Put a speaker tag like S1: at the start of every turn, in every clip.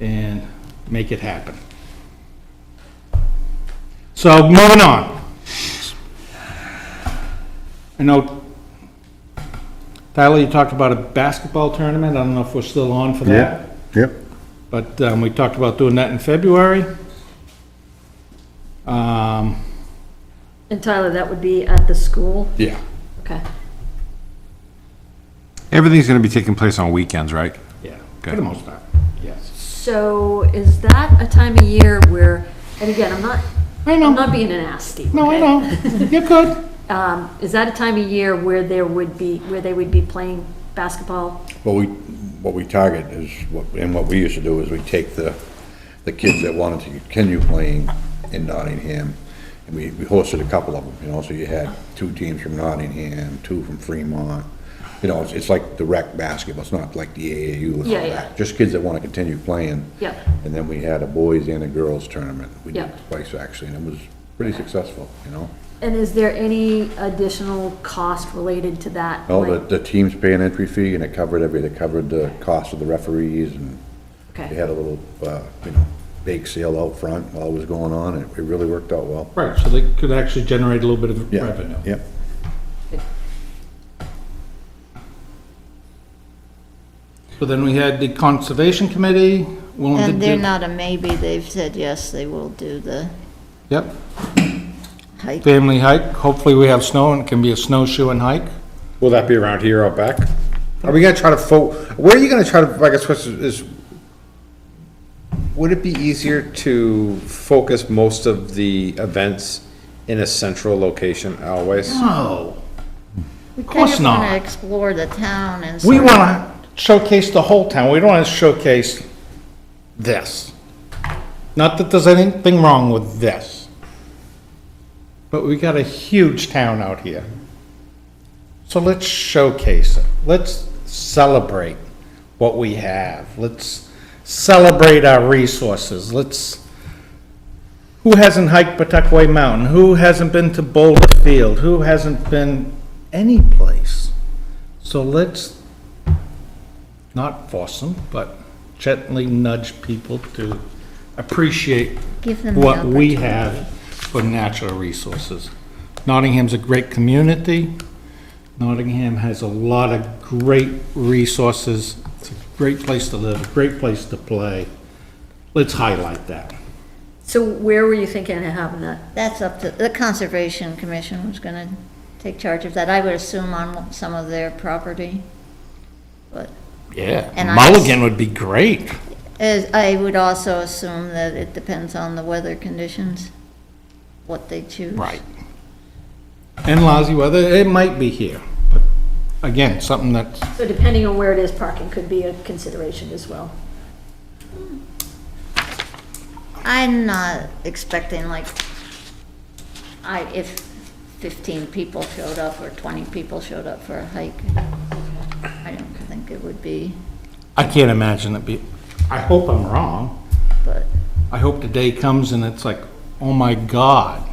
S1: and make it happen. So moving on. I know, Tyler, you talked about a basketball tournament. I don't know if we're still on for that.
S2: Yep, yep.
S1: But um, we talked about doing that in February. Um,
S3: And Tyler, that would be at the school?
S1: Yeah.
S3: Okay.
S4: Everything's going to be taking place on weekends, right?
S1: Yeah, for
S4: Okay.
S1: the most part, yes.
S3: So is that a time of year where, and again, I'm not,
S1: I
S3: I'm
S1: know,
S3: not being nasty.
S1: no, I
S3: okay?
S1: know, you're good.
S3: Um, is that a time of year where there would be, where they would be playing basketball?
S2: What we, what we target is, what and what we used to do is we take the, the kids that wanted to continue playing in Nottingham, and we, we hosted a couple of them, you know, so you had two teams from Nottingham, two from Fremont. You know, it's, it's like the rec basketball, it's not like the AAU and all
S3: Yeah, yeah.
S2: that, just kids that want to continue playing.
S3: Yep.
S2: And then we had a boys and a girls tournament, we did
S3: Yep.
S2: twice actually, and it was pretty successful, you know?
S3: And is there any additional cost related to that?
S2: Well, the,
S3: Like-
S2: the teams pay an entry fee, and it covered every, it covered the cost of the referees, and
S3: Okay.
S2: they had a little, uh, you know, bake sale out front while it was going on, and it really worked out well.
S1: Right, so they could actually generate a little bit of
S2: Yeah,
S1: revenue.
S2: Yep.
S1: So then we had the Conservation Committee willing to do...
S5: And they're not a maybe, they've said yes, they will do the
S1: Yep,
S5: hike.
S1: family hike, hopefully we have snow and it can be a snowshoe and hike.
S6: Will that be around here out back? Are we gonna try to fo, where are you gonna try to, I guess, what's, is, would it be easier to focus most of the events in a central location always?
S1: No.
S5: Of
S1: course not.
S5: We kind of want to explore the town and.
S1: We
S5: sort of-
S1: want to showcase the whole town, we don't want to showcase this. Not that there's anything wrong with this. But we got a huge town out here. So let's showcase it, let's celebrate what we have, let's celebrate our resources, let's... Who hasn't hiked Pawtuckaway Mountain? Who hasn't been to Boulder Field? Who hasn't been any place? So let's not force them, but gently nudge people to appreciate
S5: Give them the
S1: what we
S5: opportunity.
S1: have for natural resources. Nottingham's a great community. Nottingham has a lot of great resources. It's a great place to live, a great place to play. Let's highlight that.
S3: So where were you thinking of having that?
S5: That's up to, the Conservation Commission was going to take charge of that, I would assume on some of their property. But
S1: Yeah,
S5: And I-
S1: Mulligan would be great.
S5: as, I would also assume that it depends on the weather conditions, what they choose.
S1: And lousy weather, it might be here, but again, something that's,
S3: So depending on where it is, parking could be a consideration as well.
S5: I'm not expecting like, I, if fifteen people showed up or twenty people showed up for a hike, I don't think it would be,
S1: I can't imagine it be, I hope I'm wrong.
S5: but
S1: I hope the day comes and it's like, oh my God.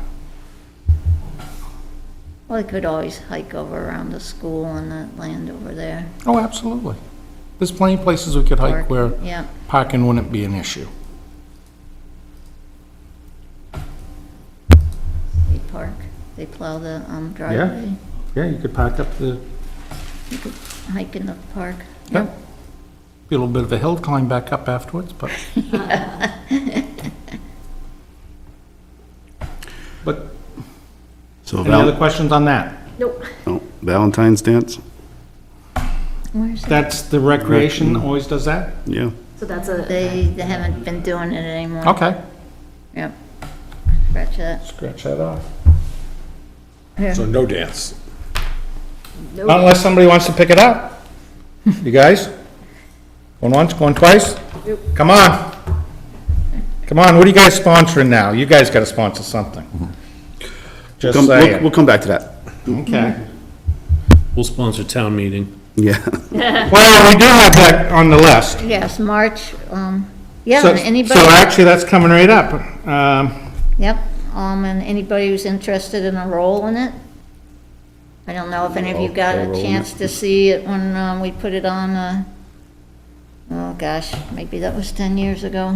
S5: well, they could always hike over around the school and that land over there.
S1: Oh, absolutely. There's plenty of places we could hike
S5: Park,
S1: where
S5: yeah.
S1: parking wouldn't be an issue.
S5: They park, they plow the um, driveway,
S1: Yeah, you could park up the,
S5: hike in the park.
S1: yeah. Be a little bit of a hill to climb back up afterwards, but. But,
S7: So
S1: any other
S7: val-
S1: questions on that?
S3: Nope.
S7: oh, Valentine's dance?
S5: Where's that?
S1: That's, the recreation always does that?
S7: Yeah.
S3: So that's a,
S5: They they haven't been doing it anymore.
S1: Okay.
S5: Yep. Scratch that.
S1: Scratch that off.
S6: So no dance.
S1: Not unless somebody wants to pick it up. You guys? Going once, going twice? Come on. Come on, what are you guys sponsoring now? You guys gotta sponsor something. Just
S7: Come- We'll
S1: saying.
S7: we'll come back to that.
S1: Okay.
S8: We'll sponsor town meeting.
S7: Yeah.
S1: Well, we do have that on the list.
S5: Yes, March, um, yeah,
S1: So,
S5: and anybody.
S1: so actually, that's coming right up. Um,
S5: Yep, um, and anybody who's interested in a role in it? I don't know if any of you got a chance to see it when, um, we put it on, uh, oh gosh, maybe that was 10 years ago.